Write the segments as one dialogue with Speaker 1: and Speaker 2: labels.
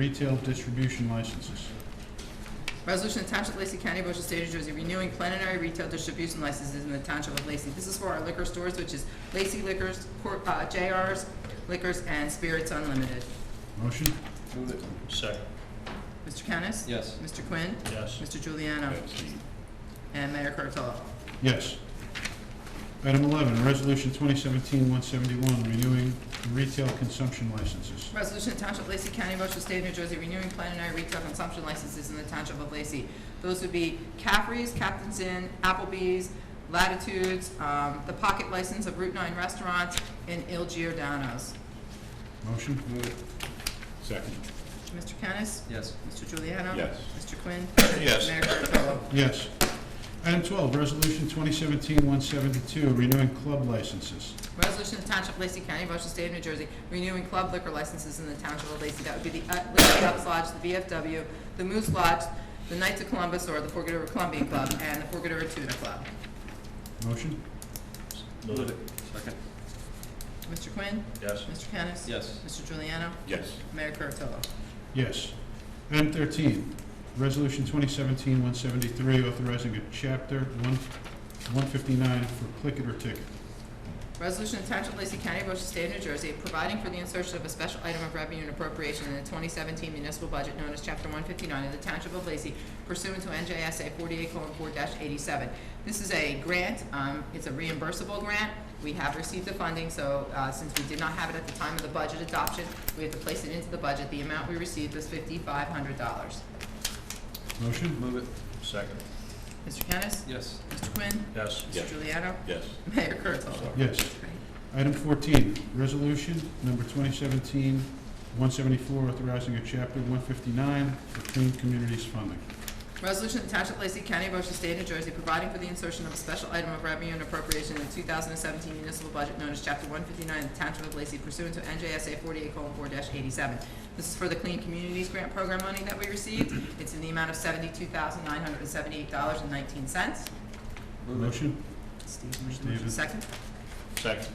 Speaker 1: Retail distribution licenses.
Speaker 2: Resolution of Township of Lacey County, Ocean State of New Jersey, renewing plenary retail distribution licenses in the Township of Lacey. This is for our liquor stores, which is Lacey Liquors, Cor- uh, JR's Liquors, and Spirits Unlimited.
Speaker 1: Motion?
Speaker 3: Move it.
Speaker 4: Second.
Speaker 2: Mr. Kennis?
Speaker 3: Yes.
Speaker 2: Mr. Quinn?
Speaker 4: Yes.
Speaker 2: Mr. Juliano? And Mayor Kurtolo.
Speaker 1: Yes. Item 11, Resolution 2017-171, renewing retail consumption licenses.
Speaker 2: Resolution of Township of Lacey County, Ocean State of New Jersey, renewing plenary retail consumption licenses in the Township of Lacey. Those would be Caffrey's, Captain's Inn, Applebee's, Latitudes, um, the pocket license of Route 9 Restaurants, and Il Giordano's.
Speaker 1: Motion?
Speaker 3: Move it.
Speaker 1: Second.
Speaker 2: Mr. Kennis?
Speaker 3: Yes.
Speaker 2: Mr. Juliano?
Speaker 4: Yes.
Speaker 2: Mr. Quinn?
Speaker 4: Yes.
Speaker 2: Mayor Kurtolo?
Speaker 1: Yes. Item 12, Resolution 2017-172, renewing club licenses.
Speaker 2: Resolution of the Township of Lacey County, Ocean State of New Jersey, renewing club liquor licenses in the Township of Lacey. That would be the uh, Lacey Ducks Lodge, the VFW, the Moose Lodge, the Knights of Columbus, or the Fort Goodover Columbian Club, and the Fort Goodover Tuna Club.
Speaker 1: Motion?
Speaker 4: Move it.
Speaker 3: Second.
Speaker 2: Mr. Quinn?
Speaker 4: Yes.
Speaker 2: Mr. Kennis?
Speaker 3: Yes.
Speaker 2: Mr. Juliano?
Speaker 4: Yes.
Speaker 2: Mayor Kurtolo?
Speaker 1: Yes. Item 13, Resolution 2017-173, authorizing a Chapter 1 159 for click it or ticket.
Speaker 2: Resolution of Township of Lacey County, Ocean State of New Jersey, providing for the insertion of a special item of revenue and appropriation in the 2017 municipal budget known as Chapter 159 of the Township of Lacey pursuant to NJSA 48:4-87. This is a grant, um, it's a reimbursable grant. We have received the funding, so uh, since we did not have it at the time of the budget adoption, we have to place it into the budget. The amount we received was $5,500.
Speaker 1: Motion?
Speaker 3: Move it.
Speaker 4: Second.
Speaker 2: Mr. Kennis?
Speaker 3: Yes.
Speaker 2: Mr. Quinn?
Speaker 4: Yes.
Speaker 2: Mr. Juliano?
Speaker 4: Yes.
Speaker 2: Mayor Kurtolo?
Speaker 1: Yes. Item 14, resolution number 2017-174, authorizing a chapter 159 for clean communities funding.
Speaker 2: Resolution to Township of Lacey County, Ocean State of New Jersey, providing for the insertion of a special item of revenue and appropriation in the 2017 municipal budget known as Chapter 159 of the Township of Lacey pursuant to NJSA 48:4-87. This is for the Clean Communities Grant Program money that we received. It's in the amount of $72,978.19.
Speaker 3: Move it.
Speaker 1: Motion?
Speaker 2: Steve made the
Speaker 1: Steven.
Speaker 2: motion. Second.
Speaker 4: Second.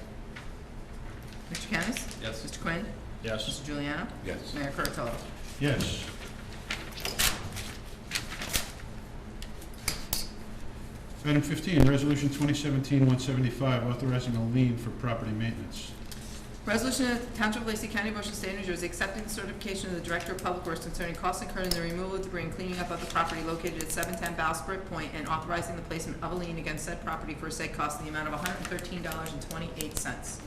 Speaker 2: Mr. Kennis?
Speaker 3: Yes.
Speaker 2: Mr. Quinn?
Speaker 4: Yes.
Speaker 2: Mr. Juliano?
Speaker 4: Yes.
Speaker 2: Mayor Kurtolo?
Speaker 1: Yes. Item 15, resolution 2017-175, authorizing a lien for property maintenance.
Speaker 2: Resolution of the Township of Lacey County, Ocean State, New Jersey, accepting the certification of the Director of Public Works concerning costs incurred in the removal of debris and cleaning up of the property located at seven ten Bowsprit Point and authorizing the placement of a lien against said property for said cost in the amount of hundred and thirteen dollars and twenty-eight cents.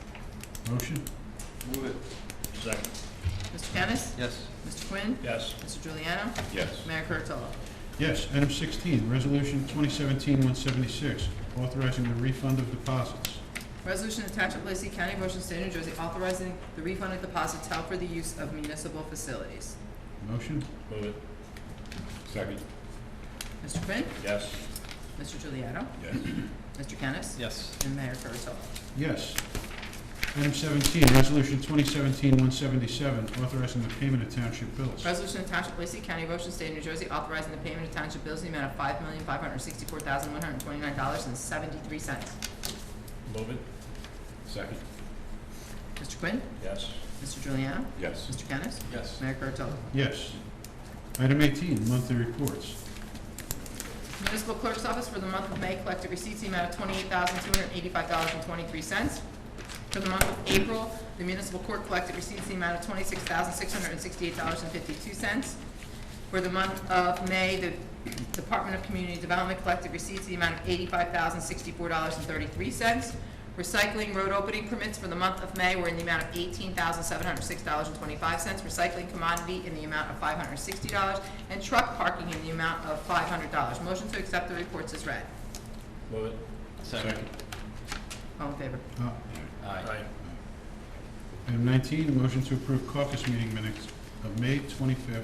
Speaker 1: Motion?
Speaker 3: Move it.
Speaker 4: Second.
Speaker 2: Mr. Kennis?
Speaker 3: Yes.
Speaker 2: Mr. Quinn?
Speaker 4: Yes.
Speaker 2: Mr. Juliano?
Speaker 4: Yes.
Speaker 2: Mayor Kurtolo?
Speaker 1: Yes. Item 16, resolution 2017-176, authorizing the refund of deposits.
Speaker 2: Resolution of Township of Lacey County, Ocean State, New Jersey, authorizing the refund of deposits held for the use of municipal facilities.
Speaker 1: Motion?
Speaker 4: Move it. Second.
Speaker 2: Mr. Quinn?
Speaker 4: Yes.
Speaker 2: Mr. Juliano?
Speaker 4: Yes.
Speaker 2: Mr. Kennis?
Speaker 3: Yes.
Speaker 2: And Mayor Kurtolo?
Speaker 1: Yes. Item 17, Resolution 2017-177, authorizing the payment of township bills.
Speaker 2: Resolution of Township of Lacey County, Ocean State, New Jersey, authorizing the payment of township bills in the amount of five million, five hundred and sixty-four thousand, one hundred and twenty-nine dollars and seventy-three cents.
Speaker 4: Move it. Second.
Speaker 2: Mr. Quinn?
Speaker 4: Yes.
Speaker 2: Mr. Juliano?
Speaker 4: Yes.
Speaker 2: Mr. Kennis?
Speaker 3: Yes.
Speaker 2: Mayor Kurtolo?
Speaker 1: Yes. Item 18, monthly reports.
Speaker 2: Municipal Clerk's Office for the month of May collected receipts in the amount of twenty-eight thousand, two hundred and eighty-five dollars and twenty-three cents. For the month of April, the municipal court collected receipts in the amount of twenty-six thousand, six hundred and sixty-eight dollars and fifty-two cents. For the month of May, the Department of Community Development collected receipts in the amount of eighty-five thousand, sixty-four dollars and thirty-three cents. Recycling road opening permits for the month of May were in the amount of eighteen thousand, seven hundred and six dollars and twenty-five cents. Recycling commodity in the amount of five hundred and sixty dollars, and truck parking in the amount of five hundred dollars. Motion to accept the reports is read.
Speaker 4: Move it.
Speaker 3: Second.
Speaker 2: All in favor?
Speaker 1: Uh,
Speaker 3: Aye.
Speaker 1: Item 19, motion to approve caucus meeting minutes of May 25th,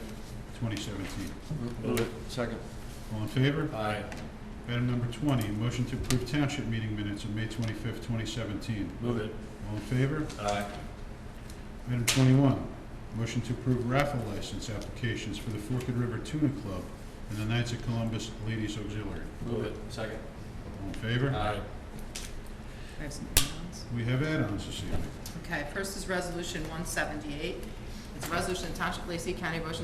Speaker 1: 2017.
Speaker 3: Move it. Second.
Speaker 1: All in favor?
Speaker 3: Aye.
Speaker 1: Item number 20, motion to approve township meeting minutes of May 25th, 2017.
Speaker 3: Move it.
Speaker 1: All in favor?
Speaker 3: Aye.
Speaker 1: Item 21, motion to approve raffle license applications for the Forked River Tuna Club and the Knights of Columbus Ladies Auxiliary.
Speaker 3: Move it. Second.
Speaker 1: All in favor?
Speaker 3: Aye.
Speaker 2: I have some comments.
Speaker 1: We have add-ons this evening.
Speaker 2: Okay, first is Resolution 178. It's a resolution of Township of Lacey County, Ocean